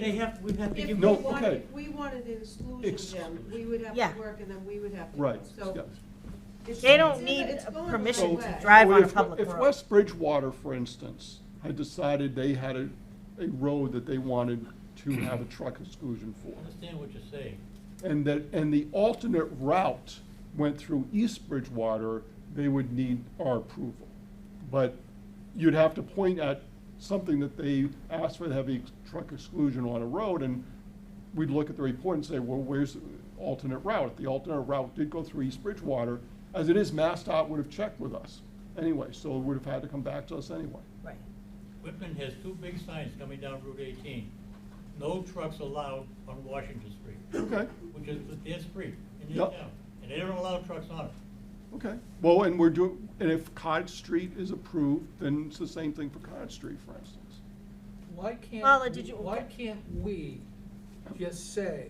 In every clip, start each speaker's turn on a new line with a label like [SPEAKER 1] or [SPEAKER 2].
[SPEAKER 1] They have, we have to
[SPEAKER 2] If
[SPEAKER 1] give.
[SPEAKER 2] we
[SPEAKER 3] No,
[SPEAKER 1] them-
[SPEAKER 2] wanted,
[SPEAKER 3] okay.
[SPEAKER 2] if we wanted an exclusion,
[SPEAKER 3] Exclusion.
[SPEAKER 2] then we would have
[SPEAKER 4] Yeah.
[SPEAKER 2] to work and then we would have to.
[SPEAKER 3] Right.
[SPEAKER 2] So
[SPEAKER 3] yeah.
[SPEAKER 2] it's-
[SPEAKER 4] They
[SPEAKER 2] it's
[SPEAKER 4] don't
[SPEAKER 2] in
[SPEAKER 4] need
[SPEAKER 2] the- it's
[SPEAKER 4] a
[SPEAKER 2] going the
[SPEAKER 4] permission
[SPEAKER 2] right
[SPEAKER 4] to
[SPEAKER 2] way.
[SPEAKER 4] drive on a
[SPEAKER 3] If-
[SPEAKER 4] public
[SPEAKER 3] If
[SPEAKER 4] road.
[SPEAKER 3] West Bridgewater, for instance, had decided they had a, a road that they wanted to have a truck exclusion
[SPEAKER 5] I
[SPEAKER 3] for,
[SPEAKER 5] understand what you're saying.
[SPEAKER 3] and that, and the alternate route went through East Bridgewater, they would need our approval. But you'd have to point at something that they asked for the heavy truck exclusion on a road, and we'd look at the report and say, well, where's the alternate route? The alternate route did go through East Bridgewater, as it is, MassDOT would have checked with us anyway, so it would have had to come back to us anyway.
[SPEAKER 4] Right.
[SPEAKER 5] Whitman has two big signs coming down Route eighteen. No trucks allowed on Washington Street,
[SPEAKER 3] Okay,
[SPEAKER 5] which is their street in their
[SPEAKER 3] Yep.
[SPEAKER 5] town, and they don't allow trucks on it.
[SPEAKER 3] okay. Well, and we're doing, and if Cod Street is approved, then it's the same thing for Cod Street, for instance.
[SPEAKER 6] Why
[SPEAKER 4] Paula,
[SPEAKER 6] can't,
[SPEAKER 4] did
[SPEAKER 6] we-
[SPEAKER 4] you-
[SPEAKER 6] why can't we just say,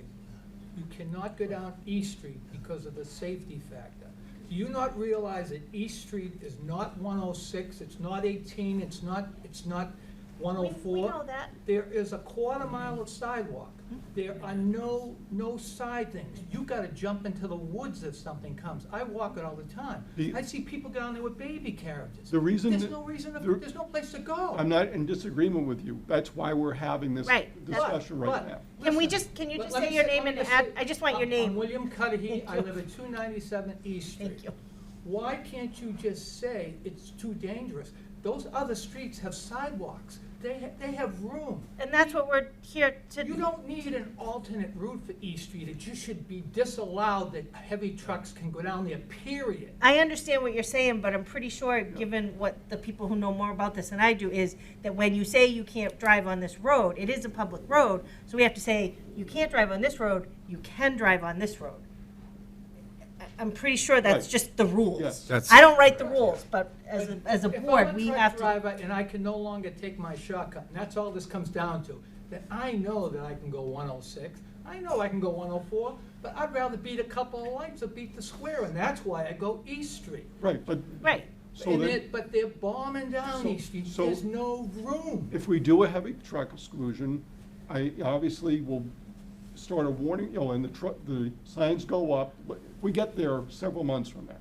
[SPEAKER 6] you cannot go down East Street because of the safety factor? Do you not realize that East Street is not one oh six, it's not eighteen, it's not, it's not one
[SPEAKER 4] We-
[SPEAKER 6] oh
[SPEAKER 4] We
[SPEAKER 6] four?
[SPEAKER 4] know that.
[SPEAKER 6] There is a quarter mile of sidewalk. There are no, no side things. You gotta jump into the woods if something comes. I walk it all the time.
[SPEAKER 3] The-
[SPEAKER 6] I see people get on there with baby carriages.
[SPEAKER 3] The reason
[SPEAKER 6] There's
[SPEAKER 3] that-
[SPEAKER 6] no reason, to-
[SPEAKER 3] the-
[SPEAKER 6] there's no place to go.
[SPEAKER 3] I'm not in disagreement with you. That's why we're having this
[SPEAKER 4] Right, that's-
[SPEAKER 3] discussion right now.
[SPEAKER 4] Can we just- can you just say your name and ad- I just want your name.
[SPEAKER 6] i William Cudahy,
[SPEAKER 4] Thank
[SPEAKER 6] I
[SPEAKER 4] you.
[SPEAKER 6] live at two ninety-seven East Street.
[SPEAKER 4] Thank you.
[SPEAKER 6] Why can't you just say it's too dangerous? Those other streets have sidewalks, they, ha- they have room.
[SPEAKER 4] And that's what we're here to.
[SPEAKER 6] You don't need an alternate route for East Street, it just should be disallowed that heavy trucks can go down there, period.
[SPEAKER 4] I understand what you're saying, but I'm pretty sure, given what the people who know more about this than I do, is that when you say you can't drive on this road, it is a public road, so we have to say, you can't drive on this road, you can drive on this road. I- I'm pretty sure that's
[SPEAKER 3] Right.
[SPEAKER 4] just the
[SPEAKER 3] Yes.
[SPEAKER 4] rules.
[SPEAKER 7] That's-
[SPEAKER 4] I don't write the rules, but as, a
[SPEAKER 6] But
[SPEAKER 4] as a board, we have
[SPEAKER 6] If I'm a
[SPEAKER 4] to.
[SPEAKER 6] truck driver and I can no longer take my shortcut, and that's all this comes down to, that I know that I can go one oh six, I know I can go one oh four, but I'd rather beat a couple of lights or beat the square, and that's why I go East Street.
[SPEAKER 3] Right, but.
[SPEAKER 4] Right.
[SPEAKER 3] So
[SPEAKER 6] And
[SPEAKER 3] then-
[SPEAKER 6] it, but they're bombing down
[SPEAKER 3] So-
[SPEAKER 6] East Street,
[SPEAKER 3] so-
[SPEAKER 6] there's no room.
[SPEAKER 3] if we do a heavy truck exclusion, I obviously will start a warning, you know, and the truck, the signs go up. We get there several months from now.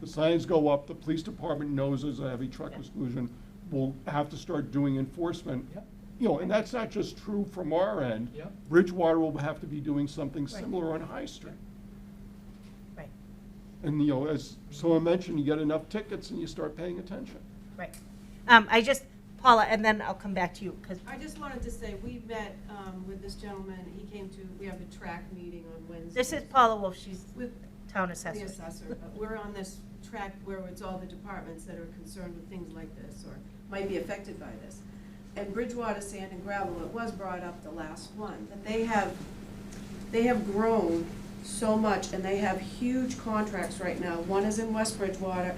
[SPEAKER 3] The signs go up, the police department knows there's a heavy truck exclusion. We'll have to start doing enforcement.
[SPEAKER 6] Yep.
[SPEAKER 3] You know, and that's not just true from our end.
[SPEAKER 6] Yep.
[SPEAKER 3] Bridgewater will have to be doing something
[SPEAKER 4] Right.
[SPEAKER 3] similar on High Street.
[SPEAKER 4] Right,
[SPEAKER 3] And, you know, as someone mentioned, you get enough tickets and you start paying attention.
[SPEAKER 4] right. Um, I just, Paula, and then I'll come back to you, because
[SPEAKER 2] I just wanted to say, we met um, with this gentleman, he came to, we have a track meeting on Wednesday.
[SPEAKER 4] this is Paula Wolf, she's
[SPEAKER 2] With
[SPEAKER 4] town
[SPEAKER 2] the
[SPEAKER 4] assessor.
[SPEAKER 2] assessor, but we're on this track where it's all the departments that are concerned with things like this or might be affected by this. And Bridgewater Sand and Gravel, it was brought up the last one, but they have, they have grown so much and they have huge contracts right now. One is in West Bridgewater,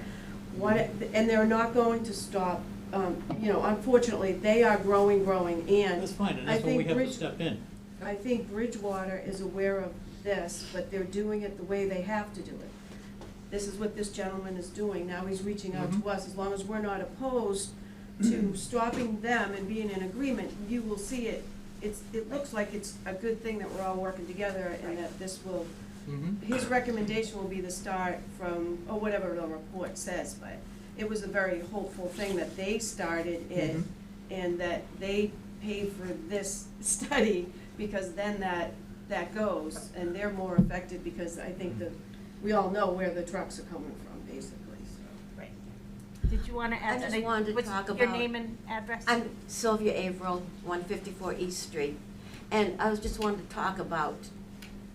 [SPEAKER 2] one, and they're not going to stop, um, you know, unfortunately, they are growing, growing and.
[SPEAKER 5] That's fine, and
[SPEAKER 2] I
[SPEAKER 5] that's where we
[SPEAKER 2] think
[SPEAKER 5] have to
[SPEAKER 2] Bridge-
[SPEAKER 5] step in.
[SPEAKER 2] I think Bridgewater is aware of this, but they're doing it the way they have to do it. This is what this gentleman is doing, now he's reaching out to us, as long as we're not opposed to stopping them and being in agreement, you will see it. It's, it looks like it's a good thing that we're all working together and that this will,
[SPEAKER 6] Mhm.
[SPEAKER 2] his recommendation will be the start from, or whatever the report says, but it was a very hopeful thing that they started it
[SPEAKER 6] Mhm.
[SPEAKER 2] and that they pay for this study because then that, that goes and they're more affected because I think that we all know where the trucks are coming from, basically, so.
[SPEAKER 4] Right. Did you want to add?
[SPEAKER 8] I just
[SPEAKER 4] something?
[SPEAKER 8] wanted to
[SPEAKER 4] What's
[SPEAKER 8] talk
[SPEAKER 4] Your
[SPEAKER 8] about-
[SPEAKER 4] name and address?
[SPEAKER 8] I'm Sylvia Averill, 154 East Street, and I was just wanting to talk about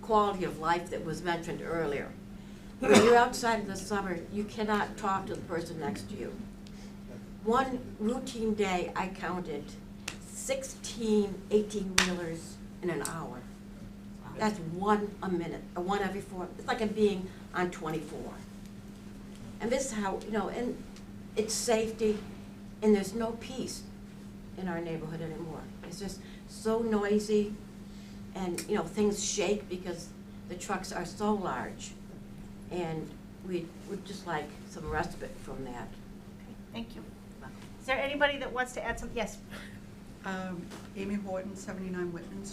[SPEAKER 8] quality of life that was mentioned earlier. When you're outside in the summer, you cannot talk to the person next to you. One routine day, I counted 16 18-wheelers in an hour. That's one a minute, or one every four, it's like I'm being on 24. And this is how, you know, and it's safety, and there's no peace in our neighborhood anymore. It's just so noisy, and, you know, things shake because the trucks are so large. And we would just like some respite from that.
[SPEAKER 4] Thank you. Is there anybody that wants to add something? Yes,
[SPEAKER 9] Um, Amy Horton, 79 Whitman